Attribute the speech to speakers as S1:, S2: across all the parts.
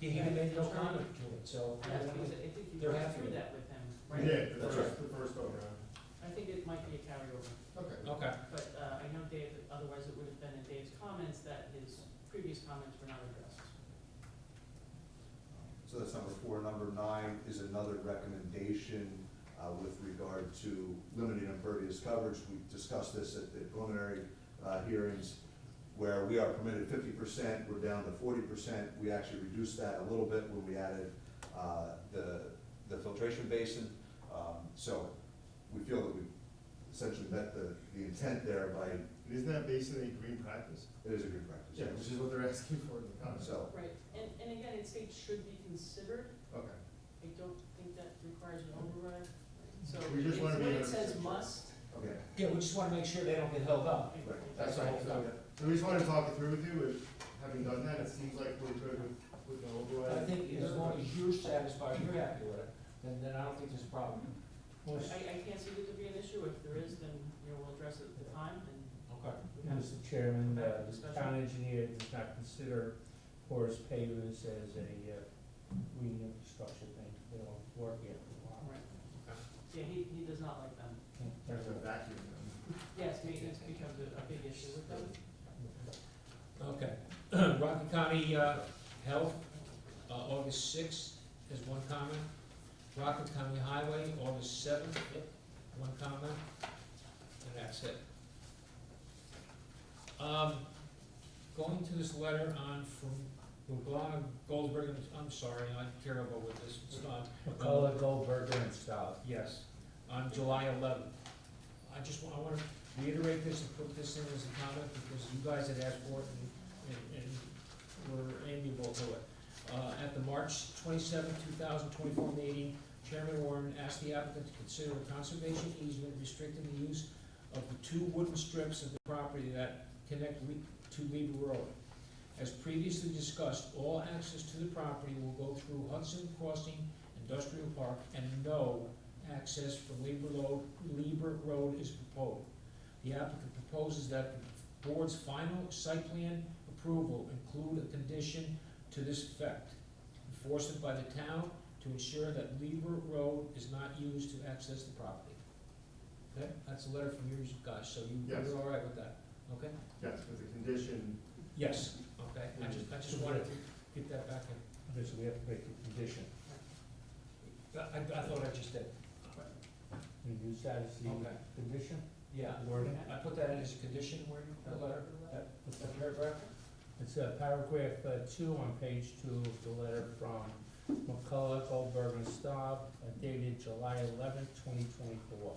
S1: He even made no comment to it, so.
S2: Yeah, that was- I think you
S1: They're
S2: went
S1: happy.
S2: through that with him,
S3: We
S2: right?
S3: did, the
S1: That's
S3: first, the first go around.
S2: I think it might be a carryover,
S3: Okay.
S1: Okay,
S2: but uh, I know Dave, otherwise it would have been in Dave's comments that his previous comments were not addressed.
S4: So that's number four. Number nine is another recommendation uh, with regard to limited impervious coverage. We discussed this at the preliminary uh, hearings where we are permitted fifty percent, we're down to forty percent. We actually reduced that a little bit when we added uh, the, the filtration basin. Um, So we feel that we essentially met the, the intent there by,
S3: Isn't that basically green practice?
S4: it is a good practice.
S3: Which is what they're asking for in the comments.
S4: So,
S2: Right, and, and again, it states should be considered,
S3: Okay,
S2: I don't think that requires an override, right? so
S3: We just
S2: it's
S3: wanna be
S2: when it says
S3: 100%
S2: must.
S4: okay.
S1: yeah, we just wanna make sure they don't get held up.
S2: it-
S4: Right.
S2: it-
S3: that's
S1: right.
S3: fine. So, so we just wanted to talk it through with you, and having done that, it seems like we're good with, with the
S1: But I
S3: override.
S1: think as long as you're satisfied, you're happy with it, then, then I don't think there's a problem.
S2: I, I can't see it to be an issue, if there is, then, you know, we'll address it at the time and.
S1: Okay.
S2: we can-
S5: Mr. Chairman, uh, the
S2: Discussion.
S5: town engineer does not consider porous pavers as a uh, green infrastructure thing. They don't work yet for
S2: Right. Yeah, he, he does not like them.
S5: a
S3: There's a
S5: while.
S3: vacuum.
S2: Yes, maintenance becomes a, a big issue with them.
S1: Okay, Rockland County uh, Health, uh, August sixth is one comment. Rockland County Highway, August seventh, one comment, and that's it. Um, Going to this letter on from Lublana Goldberg, and- I'm sorry, I'm terrible with this, it's not.
S5: McCullough, Goldberger, and Stout.
S1: Yes, on July eleventh. I just want, I want to reiterate this and put this in as a comment because you guys had asked for it and, and, and were amiable to it. Uh, at the March twenty-seventh, two thousand twenty-four meeting, Chairman Warren asked the applicant to consider a conservation easement restricting the use of the two wooden strips of the property that connect Lee- to Lee Road. As previously discussed, all access to the property will go through Hudson Crossing Industrial Park, and no access from Lieber Road, Lieber Road is proposed. The applicant proposes that the board's final site plan approval include a condition to this effect. Enforcement by the town to ensure that Lieber Road is not used to access the property. Okay, that's a letter from you guys, so you,
S3: Yes.
S1: you're all right with that, okay?
S3: Yes, with the condition,
S1: Yes, okay, I just, I just wanted to get that back in.
S5: Okay, so we have to make a condition.
S1: I, I- I thought I just did,
S5: We use that as the
S1: Okay.
S5: condition?
S1: yeah.
S5: Wording?
S1: I put that in as a condition, where you, that letter, that, that paragraph?
S5: It's uh, paragraph uh, two on page two of the letter from McCullough, Goldberger, and Stout, uh, dated July eleventh, twenty twenty-four.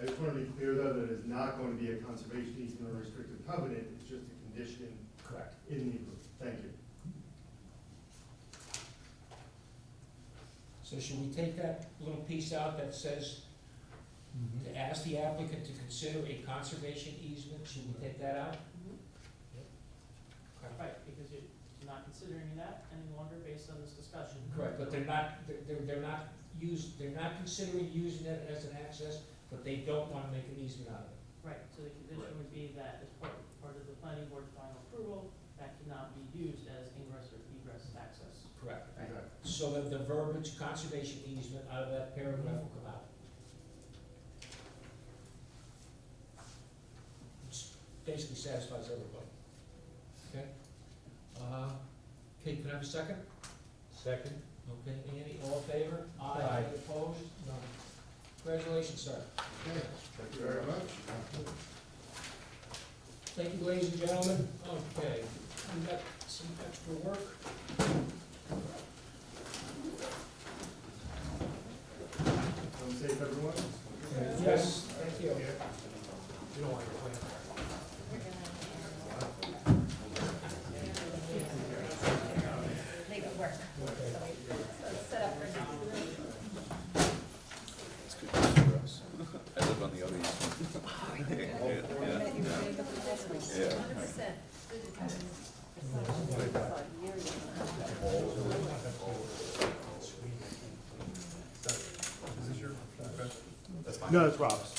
S3: I just want to be clear though, that it's not going to be a conservation easement or restrictive covenant, it's just a condition
S1: Correct.
S3: in the, agreement. thank you.
S1: So should we take that little piece out that says, to ask the applicant to consider a conservation easement, should we take that out?
S2: Mm-hmm. Right, because you're not considering that any longer based on this discussion.
S1: Correct, but they're not, they're- they're, they're not used, they're not considering using it as an access, but they don't wanna make an easement out of it.
S2: Right, so the condition would be that as part, part of the planning board's final approval, that cannot be used as ingress or egress access.
S1: Correct.
S3: Exactly.
S1: So that the verbiage conservation easement out of that paragraph will come out. Which basically satisfies everybody. Okay? Uh, Kate, can I have a second?
S5: Second?
S1: Okay, Andy, all in favor?
S5: Aye.
S1: Any Opposed? None. Congratulations, sir.
S3: Okay, thank you very much.
S1: Thank you, ladies and gentlemen. Okay, we got some extra work.
S3: Come safe, everyone.
S1: Yes, thank you. You don't want to complain.
S6: leave it work. So we- so it's set up for now.
S7: I live on the other end.
S6: Yeah. Hundred percent.
S3: No, it's Rob's.